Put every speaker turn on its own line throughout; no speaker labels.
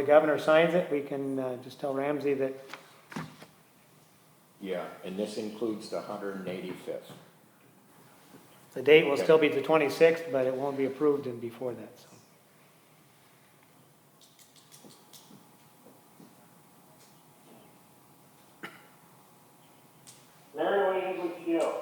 the governor signs it, we can uh, just tell Ramsey that,
Yeah, and this includes the hundred and eighty-fifth.
The date will still be the 26th, but it won't be approved and before that, so.
Mary Lee English Gill.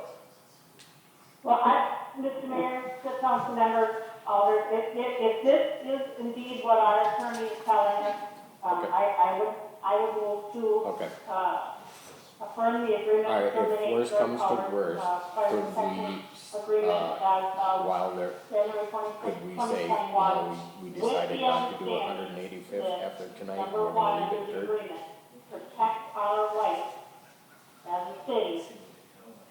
Well, I, Mr. Mayor, the council members, Alder, if, if, if this is indeed what our attorney is telling us, um,
Okay.
I, I would, I would move to,
Okay,
uh, affirm the agreement.
All right, if
terminating
worse
Dirk
comes to
Alder's,
worse,
uh, fire
could
protection
we,
Agreement
uh,
as of
while there,
January twenty-sixth,
could we
twenty
say, you
twenty-one.
know, we, we decided not to do hundred and eighty-fifth after tonight,
Number
we're
one
gonna
under
leave
the
it dirt?
agreement, protect our rights as a city,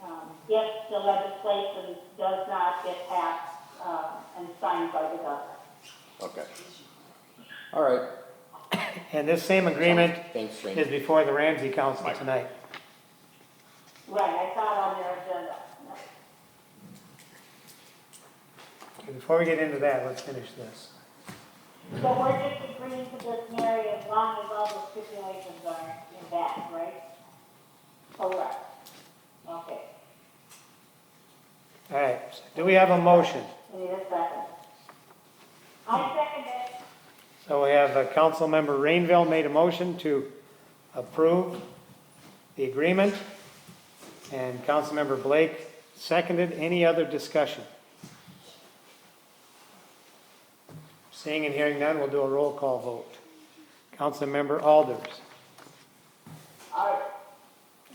um, if the legislation does not get passed, uh, and signed by the governor.
Okay. All right.
And this same agreement
Thanks, Rainey.
is before the Ramsey Council tonight.
Right, I saw it on their agenda.
Okay, Before we get into that, let's finish this.
So we're just agreeing to this, Mary, as long as all the stipulations are in that, right? Correct. Okay,
All right, so do we have a motion?
we need a second. I second it.
So we have uh, Councilmember Rainville made a motion to approve the agreement, and Councilmember Blake seconded. Any other discussion? Seeing and hearing none, we'll do a roll call vote. Councilmember Alders.
Aye.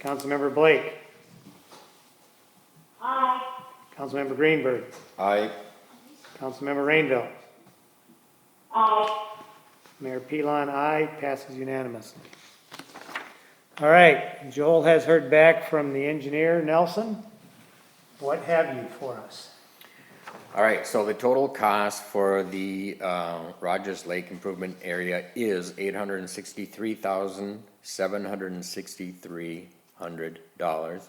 Councilmember Blake.
Aye.
Councilmember Greenberg.
Aye.
Councilmember Rainville.
Aye.
Mayor Pilon, aye, passes unanimously. All right, Joel has heard back from the engineer, Nelson. What have you for us?
All right, so the total cost for the uh, Rogers Lake Improvement Area is eight hundred and sixty-three thousand, seven hundred and sixty-three hundred dollars.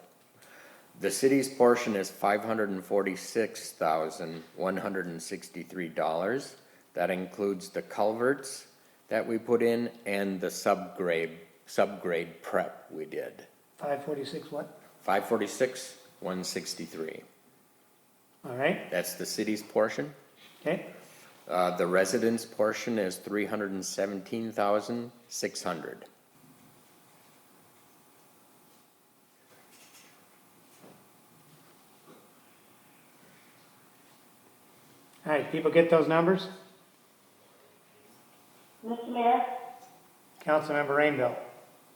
The city's portion is five hundred and forty-six thousand, one hundred and sixty-three dollars. That includes the culverts that we put in and the subgrade, subgrade prep we did.
546 what?
Five forty-six, one sixty-three.
All right,
That's the city's portion.
okay,
Uh, the residence portion is three hundred and seventeen thousand, six hundred.
all right, people get those numbers?
Mr. Mayor,
Councilmember Rainville,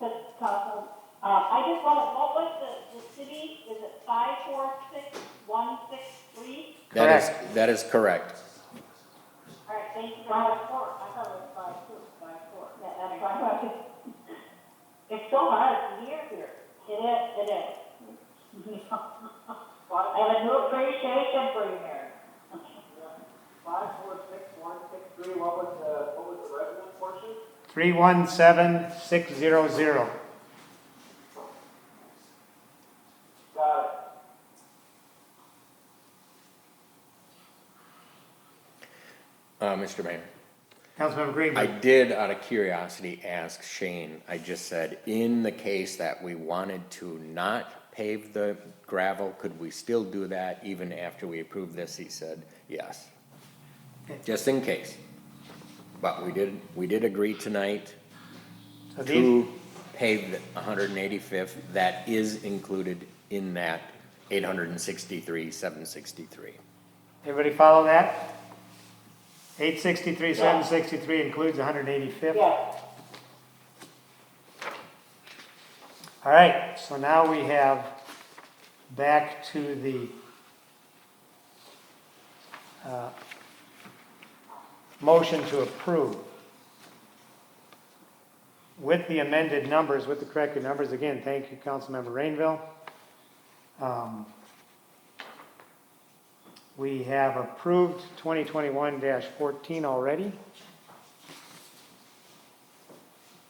Mr. Council, uh, I just want to, what was the, the city, is it five, four, six, one, six, three?
That is, that is correct.
All right, thank you, five, four, I thought it was five, two, five, four, yeah, that's five, five. It's so hard to hear here. It is, it is. Well, I have a new appreciation for you, Mayor.
Five, four, six, one, six, three, what was the, what was the resident portion?
317600.
Got it.
Uh, Mr. Mayor,
Councilmember
I
Greenberg,
did out of curiosity ask Shane, I just said, in the case that we wanted to not pave the gravel, could we still do that even after we approve this? He said, yes. Just in case. But we did, we did agree tonight
so these,
to pave the 185th, that is included in that 863, 763.
everybody follow that? 863, 763 includes 185th.
Yes,
All right, so now we have back to the uh, motion to approve. With the amended numbers, with the corrected numbers, again, thank you, Councilmember Rainville. Um, We have approved 2021-14 already.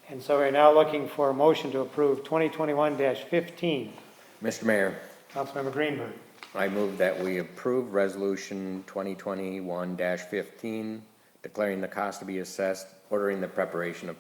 And so we're now looking for a motion to approve 2021-15.
Mr. Mayor,
Councilmember Greenberg.
I move that we approve Resolution 2021-15, declaring the cost to be assessed ordering the preparation of